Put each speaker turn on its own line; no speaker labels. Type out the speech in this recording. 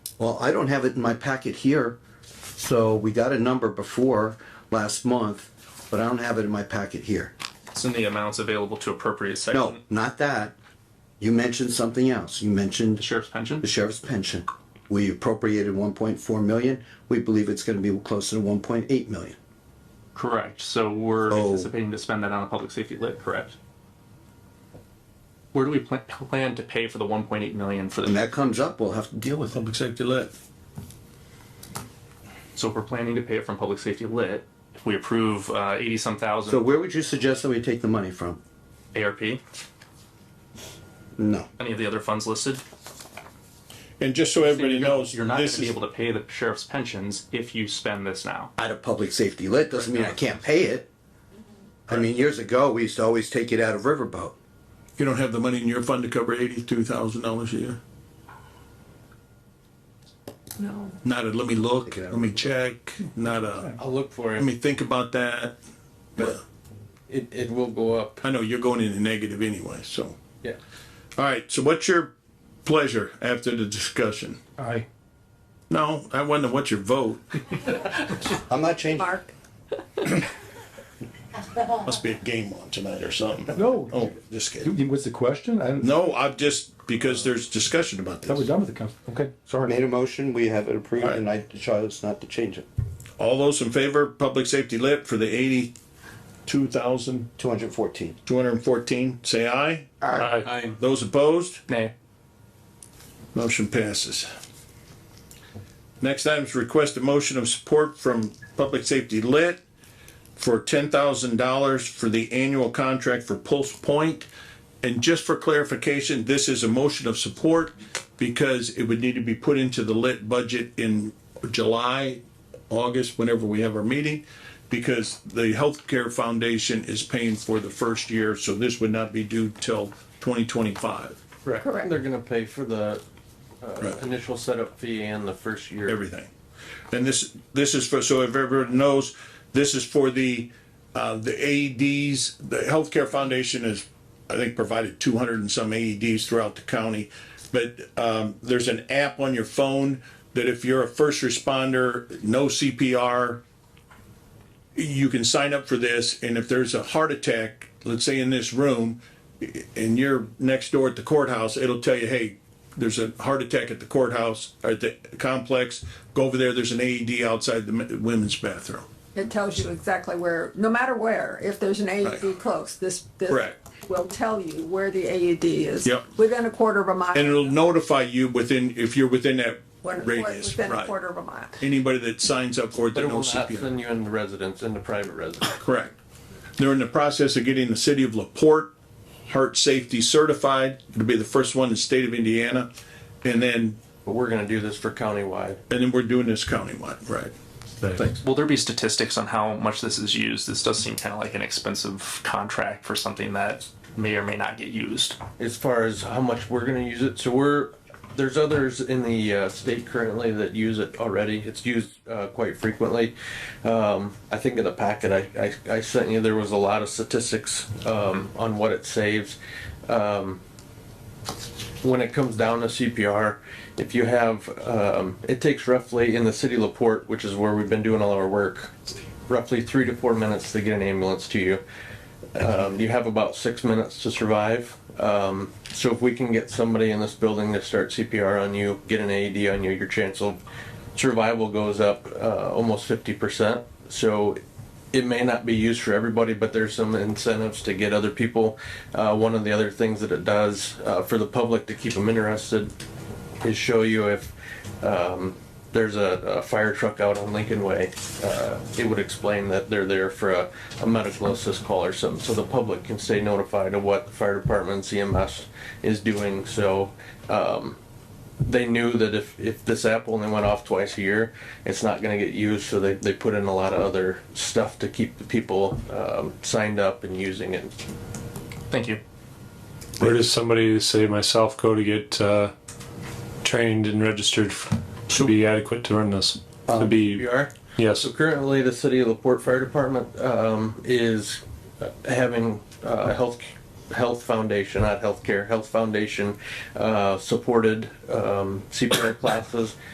Well, I don't have it in my packet here, so we got a number before last month, but I don't have it in my packet here.
It's in the amounts available to appropriate section.
No, not that. You mentioned something else. You mentioned
The sheriff's pension?
the sheriff's pension. We appropriated one point four million. We believe it's gonna be closer to one point eight million.
Correct. So we're
So-
anticipating to spend that on a public safety lit, correct? Where do we plan, plan to pay for the one point eight million for
When
the,
that comes up, we'll have to deal with it.
Public safety lit.
so if we're planning to pay it from public safety lit, if we approve, uh, eighty-some
So
thousand
where would you suggest that we take the money from?
ARP, any
No.
of the other funds listed?
And just so everybody knows,
You're not gonna
this
be
is,
able to pay the sheriff's pensions if you spend this now.
Out of public safety lit doesn't mean I can't pay it. I mean, years ago, we used to always take it out of Riverboat.
you don't have the money in your fund to cover eighty-two thousand dollars a year? No. Not a, let me look, let me check, not a,
I'll look for
let
it.
me think about that. But
It, it will go up.
I know you're going in the negative anyway, so.
Yeah.
All right, so what's your pleasure after the discussion?
Aye.
No, I wonder what's your vote?
I'm not changing.
Mark,
Must be a game on tonight or something.
No.
Oh, just kidding.
What's the question? I don't,
No, I've just, because there's discussion about
thought we're
this.
done with the council. Okay, sorry.
Made a motion, we have it approved, and I chose not to change it.
All those in favor, public safety lit for the eighty-two thousand,
Two hundred fourteen.
two hundred and fourteen, say aye.
Aye.
Aye.
Those opposed,
Nay.
motion passes. Next item is request a motion of support from public safety lit for ten thousand dollars for the annual contract for Pulse Point. And just for clarification, this is a motion of support because it would need to be put into the lit budget in July, August, whenever we have our meeting, because the Healthcare Foundation is paying for the first year, so this would not be due till twenty twenty-five,
Correct.
Correct.
They're gonna pay for the uh,
Right.
initial setup fee and the first year.
everything. And this, this is for, so if everyone knows, this is for the, uh, the AEDs, the Healthcare Foundation is, I think, provided two hundred and some AEDs throughout the county. But, um, there's an app on your phone that if you're a first responder, no CPR, you can sign up for this, and if there's a heart attack, let's say in this room, i- and you're next door at the courthouse, it'll tell you, hey, there's a heart attack at the courthouse, or at the complex, go over there, there's an AED outside the men- women's bathroom.
it tells you exactly where, no matter where, if there's an AED
Right.
close, this, this
Correct.
will tell you where the AED is.
Yep.
Within a quarter of a
And
mile.
it'll notify you within, if you're within that
When-
radius,
Within a quarter
right?
of a mile.
Anybody that signs up for it, that
But it will
knows
not
CPR.
send you into residence, into private residence.
Correct. They're in the process of getting the city of LaPorte heart safety certified. It'll be the first one in the state of Indiana. And then,
But we're gonna do this for countywide.
and then we're doing this countywide, right? Thanks.
Will there be statistics on how much this is used? This does seem kind of like an expensive contract for something that may or may not get used.
as far as how much we're gonna use it, so we're, there's others in the uh, state currently that use it already, it's used uh, quite frequently. Um, I think in the packet I, I, I sent you, there was a lot of statistics um, on what it saves. Um, When it comes down to CPR, if you have, um, it takes roughly in the city of Laporte, which is where we've been doing all our work, roughly three to four minutes to get an ambulance to you. Um, you have about six minutes to survive. Um, so if we can get somebody in this building to start CPR on you, get an AED on you, your chance of survival goes up uh, almost 50%. So it may not be used for everybody, but there's some incentives to get other people. Uh, one of the other things that it does uh, for the public to keep them interested is show you if um, there's a, a fire truck out on Lincoln Way. Uh, it would explain that they're there for a, a medical assist call or something, so the public can stay notified of what the fire department, CMS is doing. So um, they knew that if, if this app only went off twice a year, it's not going to get used. So they, they put in a lot of other stuff to keep the people um, signed up and using it.
Thank you.
Where does somebody, say myself, go to get uh, trained and registered f- to be adequate to run this? To be,
You um, are?
yes,
So currently, the city of LaPorte Fire Department um, is having uh, health health foundation, not healthcare, health foundation uh, supported um, CPR classes.